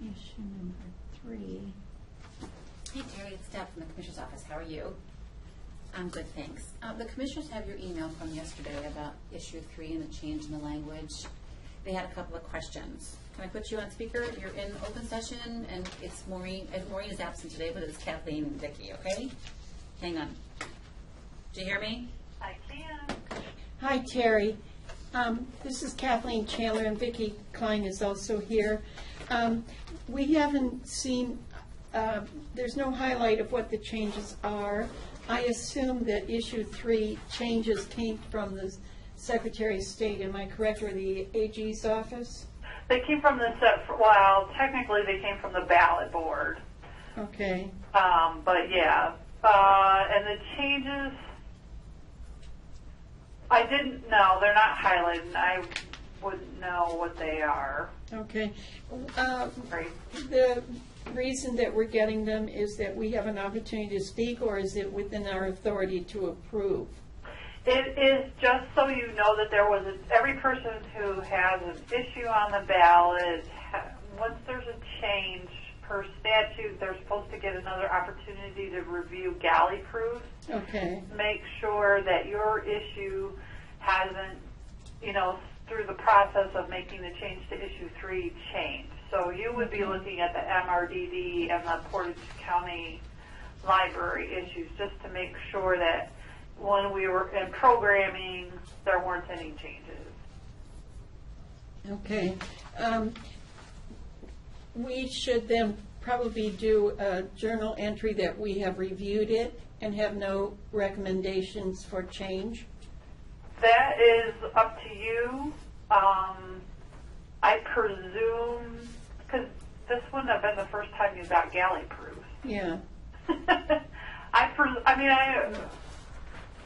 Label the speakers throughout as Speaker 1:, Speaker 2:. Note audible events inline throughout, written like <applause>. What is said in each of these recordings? Speaker 1: And number three,
Speaker 2: Hey Terry, it's Deb from the Commissioner's Office. How are you? I'm good, thanks. Uh, The Commissioners have your email from yesterday about issue three and the change in the language. They had a couple of questions. Can I put you on speaker? You're in open session, and it's Maureen, and Maureen is absent today, but it's Kathleen and Vicky, okay? Hang on. Do you hear me?
Speaker 3: I can.
Speaker 4: Hi, Terry. Um, This is Kathleen Chandler, and Vicki Klein is also here. Um, We haven't seen, uh, there's no highlight of what the changes are. I assume that issue three changes came from the Secretary of State, am I correct, or the AG's office?
Speaker 3: They came from the set, well, technically they came from the ballot board,
Speaker 4: Okay,
Speaker 3: um, but yeah. Uh, and the changes, I didn't know, they're not highlighted, I wouldn't know what they are.
Speaker 4: okay. Uh,
Speaker 3: Right.
Speaker 4: The reason that we're getting them is that we have an opportunity to speak, or is it within our authority to approve?
Speaker 3: It is just so you know that there was, a- every person who has an issue on the ballot, ha- once there's a change per statute, they're supposed to get another opportunity to review galley proofs.
Speaker 4: Okay.
Speaker 3: make sure that your issue hasn't, you know, through the process of making the change to issue three change. So you would be looking at the MRDD and the Portage County Library issues just to make sure that when we were in programming, there weren't any changes.
Speaker 4: Okay. Um, We should then probably do a journal entry that we have reviewed it and have no recommendations for change.
Speaker 3: That is up to you. Um, I presume, because this wouldn't have been the first time you got galley proofs.
Speaker 4: Yeah,
Speaker 3: <laughs> I, pres- I mean, I,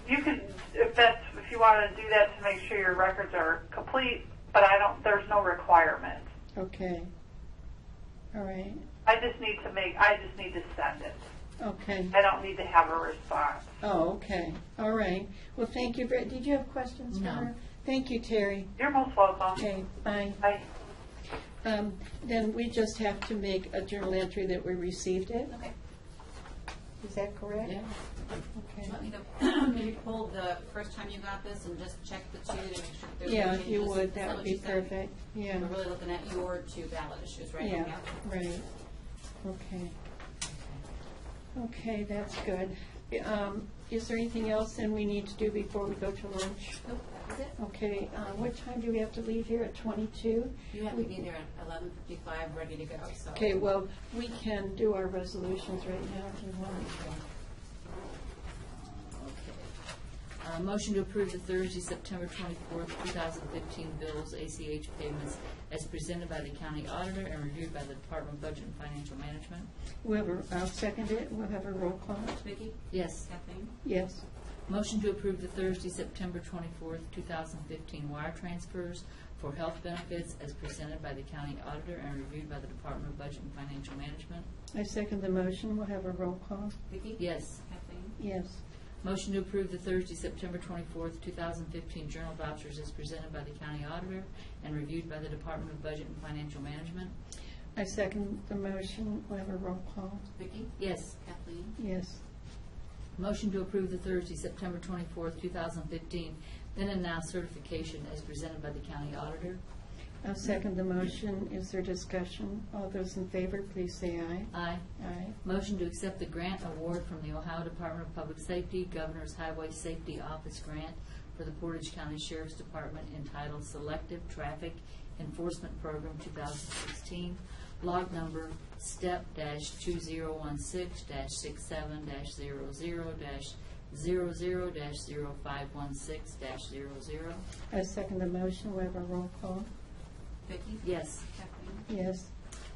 Speaker 3: you could, if that's, if you want to do that to make sure your records are complete, but I don't, there's no requirement.
Speaker 4: okay. All right,
Speaker 3: I just need to make, I just need to send it.
Speaker 4: okay.
Speaker 3: I don't need to have a response.
Speaker 4: Oh, okay, all right. Well, thank you, very did you have questions for
Speaker 2: No.
Speaker 4: her? Thank you, Terry.
Speaker 3: You're most welcome.
Speaker 4: Okay, bye.
Speaker 3: I,
Speaker 4: Um, Then we just have to make a journal entry that we received it.
Speaker 2: Okay.
Speaker 4: Is that correct?
Speaker 2: Yeah.
Speaker 4: Okay.
Speaker 2: Do you want me to <clears throat> maybe pull the first time you got this and just check the two to make sure that there's no
Speaker 4: Yeah,
Speaker 2: changes?
Speaker 4: if you would,
Speaker 2: Is
Speaker 4: that
Speaker 2: what
Speaker 4: would be
Speaker 2: you said?
Speaker 4: perfect. Yeah,
Speaker 2: We're really looking at your two ballot issues, right?
Speaker 4: yeah, right. Okay. Okay, that's good. Um, Is there anything else then we need to do before we go to lunch?
Speaker 2: Nope, that was it.
Speaker 4: Okay, uh, what time do we have to leave here, at 22?
Speaker 2: You have to be there at eleven fifty-five, ready to go, so.
Speaker 4: Okay, well, we can do our resolutions right now if you want.
Speaker 5: Uh, Motion to approve the Thursday, September 24th, 2015 bills, ACH payments as presented by the county auditor and reviewed by the Department of Budget and Financial Management.
Speaker 4: We'll have a- I'll second it, we'll have a roll call.
Speaker 2: Vicki?
Speaker 5: Yes.
Speaker 2: Kathleen?
Speaker 4: Yes,
Speaker 5: Motion to approve the Thursday, September 24th, 2015 wire transfers for health benefits as presented by the county auditor and reviewed by the Department of Budget and Financial Management.
Speaker 4: I second the motion, we'll have a roll call.
Speaker 2: Vicki?
Speaker 5: Yes.
Speaker 2: Kathleen?
Speaker 4: Yes,
Speaker 5: Motion to approve the Thursday, September 24th, 2015 journal vouchers as presented by the county auditor and reviewed by the Department of Budget and Financial Management.
Speaker 4: I second the motion, we'll have a roll call.
Speaker 2: Vicki?
Speaker 5: Yes.
Speaker 2: Kathleen?
Speaker 4: Yes.
Speaker 5: Motion to approve the Thursday, September 24th, 2015, then and now certification as presented by the county auditor.
Speaker 4: I'll second the motion. Is there discussion? All those in favor, please say aye.
Speaker 5: Aye.
Speaker 4: Aye.
Speaker 5: Motion to accept the grant award from the Ohio Department of Public Safety Governor's Highway Safety Office Grant for the Portage County Sheriff's Department entitled Selective Traffic Enforcement Program 2016, log number step dash 2016 dash 67 dash 00 dash 00 dash 0516 dash 00.
Speaker 4: I second the motion. We have a roll call.
Speaker 2: Vicki?
Speaker 5: Yes.
Speaker 2: Kathleen?
Speaker 4: Yes.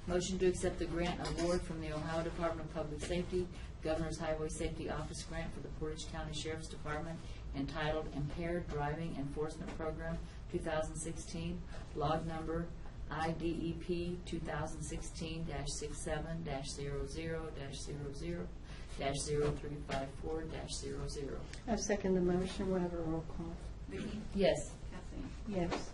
Speaker 5: Motion to accept the grant award from the Ohio Department of Public Safety, Governor's Highway Safety Office Grant for the Portage County Sheriff's Department entitled Impaired Driving Enforcement Program 2016, log number E IDEP 2016-67-00-00-0354-00.
Speaker 4: I second the motion. We have a roll call.
Speaker 2: Vicki?
Speaker 5: Yes.
Speaker 2: Kathleen?
Speaker 4: Yes.